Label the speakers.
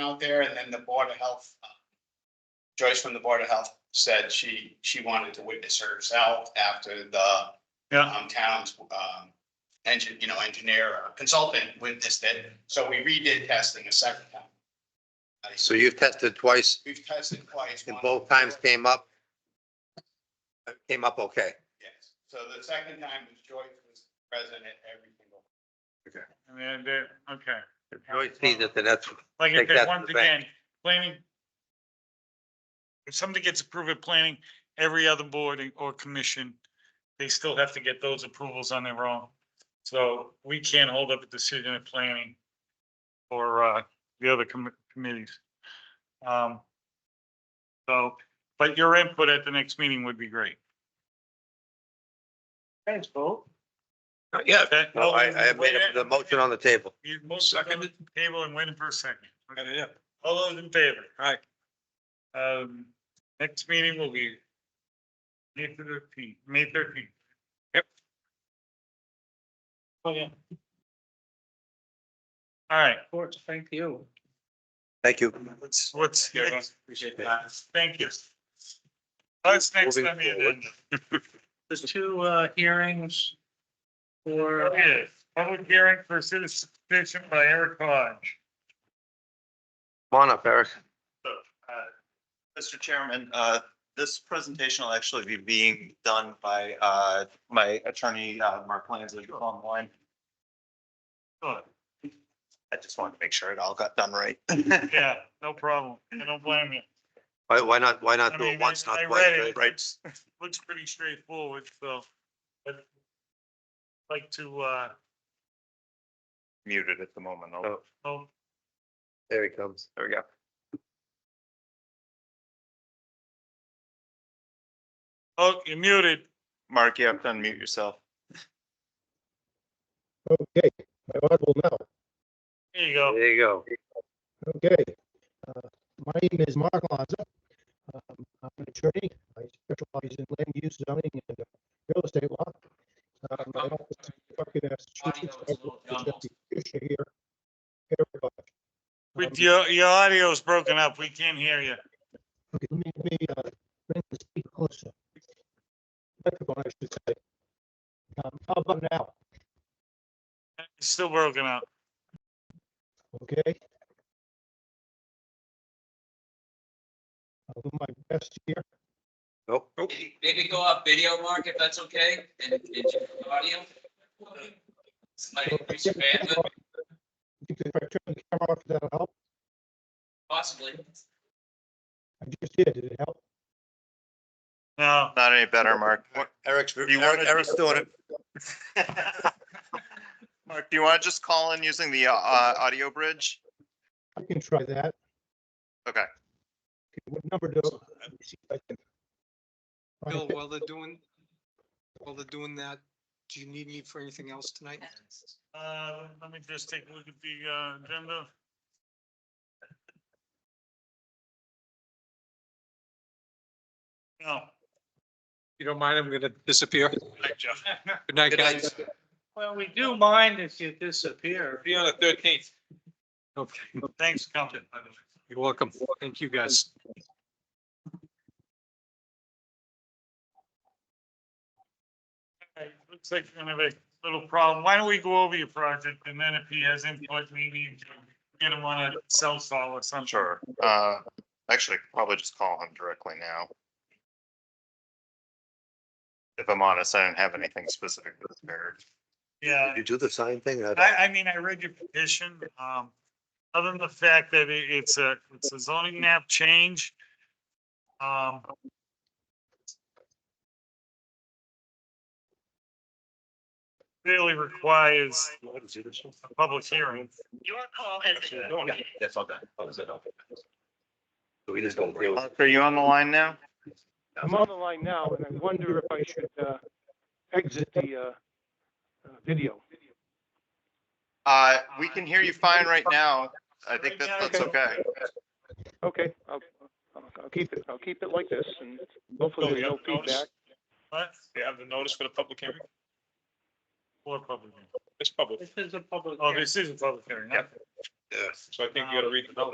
Speaker 1: out there and then the Board of Health. uh, Joyce from the Board of Health said she, she wanted to witness herself after the
Speaker 2: Yeah,
Speaker 1: um, town's, um, engine, you know, engineer or consultant witnessed it. So we redid testing a second time. Uh,
Speaker 3: So you've tested twice
Speaker 1: We've tested twice.
Speaker 3: and
Speaker 1: one-
Speaker 3: both times came up? Came up okay.
Speaker 1: Yes. So the second time was Joyce was present at every single.
Speaker 2: I mean, they, okay.
Speaker 3: If Joyce sees it, then that's,
Speaker 2: Like I
Speaker 3: Take that
Speaker 2: said,
Speaker 3: to
Speaker 2: once
Speaker 3: the bank.
Speaker 2: again, planning. If somebody gets approved at planning, every other board or commission, they still have to get those approvals on their own. So we can't hold up a decision at planning or uh the other commi- committees. Um. So, but your input at the next meeting would be great. Thanks, Bo.
Speaker 3: Uh, yeah.
Speaker 2: Okay.
Speaker 3: No, I, I have made a- the motion on the table.
Speaker 2: You most second the table and waiting for a second. Yeah. All those in favor? Aye. Um, next meeting will be May thirteenth, May thirteenth. Yep. Oh, yeah. All right,
Speaker 3: Thank you.
Speaker 2: what's next? Uh,
Speaker 1: Appreciate
Speaker 3: that.
Speaker 2: Thank you. What's next
Speaker 3: Moving
Speaker 2: on the
Speaker 3: forward.
Speaker 2: agenda?
Speaker 4: The two uh hearings for,
Speaker 2: Yes, public hearing for citizen petition by Eric Hodge.
Speaker 3: Come on up, Eric.
Speaker 5: Mr. Chairman, uh, this presentation will actually be being done by, uh, my attorney, uh, Mark Lanza, who's online.
Speaker 2: Sure.
Speaker 5: I just wanted to make sure it all got done right.
Speaker 2: Yeah, no problem. I don't blame you.
Speaker 3: Why, why not, why
Speaker 2: I
Speaker 3: not do
Speaker 2: mean,
Speaker 3: it once,
Speaker 2: I- I
Speaker 3: not
Speaker 2: read
Speaker 3: twice?
Speaker 2: it.
Speaker 3: right?
Speaker 5: Right.
Speaker 2: looks pretty straightforward, so. I'd Like to, uh,
Speaker 5: Muted at the moment. I'll-
Speaker 3: Oh.
Speaker 2: oh,
Speaker 3: There he comes.
Speaker 5: There we go.
Speaker 2: oh, you're muted.
Speaker 5: Mark, you have to unmute yourself.
Speaker 6: Okay, I'm audible now.
Speaker 2: There you go.
Speaker 3: There you go.
Speaker 6: Okay. Uh, My name is Mark Lanza. Um, I'm an attorney. I specialize in land use zoning and uh, real estate law. Um, My office is in Buckingham, Massachusetts. I represent the issue here. Everybody.
Speaker 2: With
Speaker 6: Um,
Speaker 2: your, your audio's broken up. We can't hear you.
Speaker 6: Okay, let me, let me, uh, bring the speaker closer. Microphone, I should say. Um, How about now?
Speaker 2: It's still broken up.
Speaker 6: Okay. I'll do my best here.
Speaker 3: Nope.
Speaker 7: Maybe- Maybe go off video, Mark, if that's okay, and, and check the audio. Slightly increase your bandwidth,
Speaker 6: If I turn the camera off, that'll help.
Speaker 7: possibly.
Speaker 6: I just did. Did it help?
Speaker 2: No,
Speaker 5: Not any better, Mark.
Speaker 3: Eric's,
Speaker 5: you wanna-
Speaker 3: Eric's doing it.
Speaker 5: Mark, do you want to just call in using the, uh, uh, audio bridge?
Speaker 6: I can try that.
Speaker 5: Okay.
Speaker 6: Okay, What number do? let me see if I can find
Speaker 8: Bill,
Speaker 6: it.
Speaker 8: while they're doing, while they're doing that, do you need me for anything else tonight?
Speaker 2: uh, let me just take a look at the, uh, agenda. No.
Speaker 8: You don't mind, I'm gonna disappear. Good night, guys.
Speaker 4: well, we do mind if you disappear.
Speaker 8: Be on the thirteenth. Okay,
Speaker 2: Thanks, for coming. by the way.
Speaker 8: you're welcome. Thank you, guys.
Speaker 2: All right, Looks like we're gonna have a little problem. Why don't we go over your project and then if he has input, maybe you can get him on a cell call or something.
Speaker 5: Sure. Uh, actually, I could probably just call him directly now. If I'm honest, I do not have anything specific to this marriage.
Speaker 2: Yeah.
Speaker 3: Did you do the sign thing? I-
Speaker 2: I, I mean, I read your petition, um, other than the fact that it, it's a, it's a zoning map change. Um. Really requires a public hearing.
Speaker 9: That's all done. That was it. So we just don't.
Speaker 5: Alex, Are you on the line now?
Speaker 10: I'm on the line now, and I wonder if I should uh, exit the uh, uh, video.
Speaker 5: Uh, we can hear you fine right now. I think that that's okay.
Speaker 10: Okay, I'll, I'll- I'll keep it, I'll keep it like this, and hopefully there's no feedback.
Speaker 2: What?
Speaker 9: They have the notice for the public hearing?
Speaker 2: Or public, hearing.
Speaker 9: It's public.
Speaker 4: This is a public
Speaker 2: oh,
Speaker 4: hearing.
Speaker 2: this is a public hearing, not
Speaker 9: So I think you gotta read the notice.